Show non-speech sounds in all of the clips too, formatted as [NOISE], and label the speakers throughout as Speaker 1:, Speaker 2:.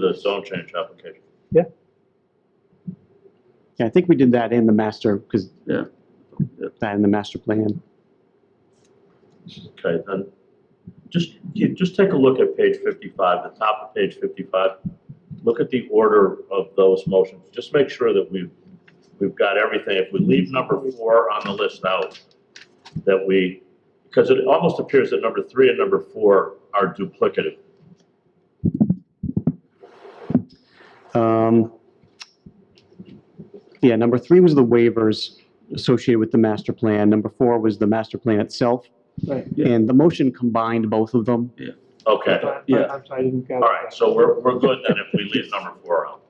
Speaker 1: the zone change application.
Speaker 2: Yeah, I think we did that in the master, because
Speaker 1: Yeah. Yeah.
Speaker 2: that in the master plan.
Speaker 1: Okay, then, just, you- just take a look at page fifty-five, the top of page fifty-five. Look at the order of those motions, just make sure that we've, we've got everything. If we leave number four on the list out, that we, because it almost appears that number three and number four are duplicative.
Speaker 2: Um, Yeah, number three was the waivers associated with the master plan. Number four was the master plan itself.
Speaker 3: Right.
Speaker 2: And the motion combined both of them.
Speaker 1: Okay,
Speaker 3: I- I-
Speaker 4: Yeah.
Speaker 3: I'm sorry, I didn't
Speaker 1: all
Speaker 3: gather.
Speaker 1: right,
Speaker 3: that.
Speaker 1: so we're, we're good then if we leave number four out.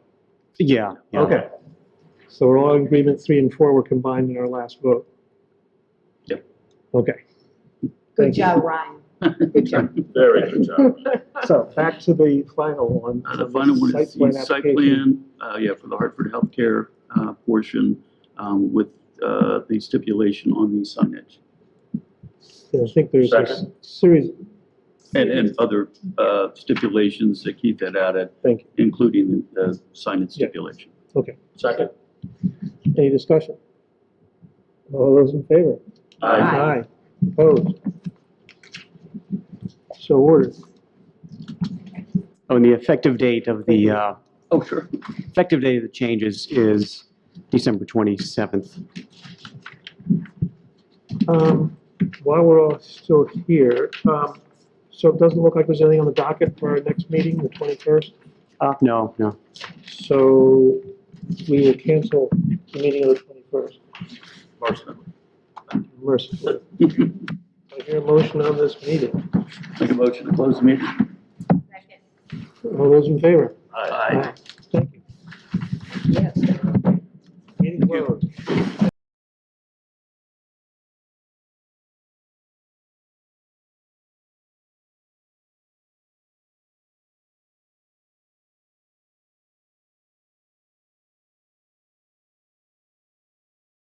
Speaker 2: Yeah. yeah.
Speaker 3: Okay. So we're all in agreement, three and four were combined in our last vote?
Speaker 4: Yep.
Speaker 3: Okay,
Speaker 5: Good
Speaker 3: Thank you.
Speaker 5: job, Ryan.
Speaker 3: good job.
Speaker 1: Very good job.
Speaker 3: So back to the final one.
Speaker 4: [LAUGHS] Uh, The final one is the site
Speaker 3: application.
Speaker 4: plan, uh, yeah, for the Hartford Healthcare uh, portion um, with uh, the stipulation on the signage
Speaker 3: And I think there's a s-
Speaker 1: Second.
Speaker 3: series,
Speaker 4: and, and other uh, stipulations that Keith had added,
Speaker 3: thank you.
Speaker 4: including the signage stipulation.
Speaker 1: Second?
Speaker 3: Any discussion? All those in favor?
Speaker 5: Aye.
Speaker 3: Opposed? So ordered.
Speaker 2: Oh, and the effective date of the, uh,
Speaker 4: Oh, sure.
Speaker 2: effective date of the changes is December 27th.
Speaker 3: Um, While we're all still here, um, so it doesn't look like there's anything on the docket for our next meeting, the 21st.
Speaker 2: Uh, No, no.
Speaker 3: So we will cancel the meeting of the 21st. Mercifully.
Speaker 4: [LAUGHS] Make
Speaker 3: I hear a motion on this meeting.
Speaker 4: a motion to close the meeting.
Speaker 5: Second.
Speaker 3: All those in favor?
Speaker 1: Aye.
Speaker 4: Aye.
Speaker 3: Thank you.
Speaker 5: Yes.
Speaker 3: Meeting
Speaker 4: Thank you.
Speaker 3: closed.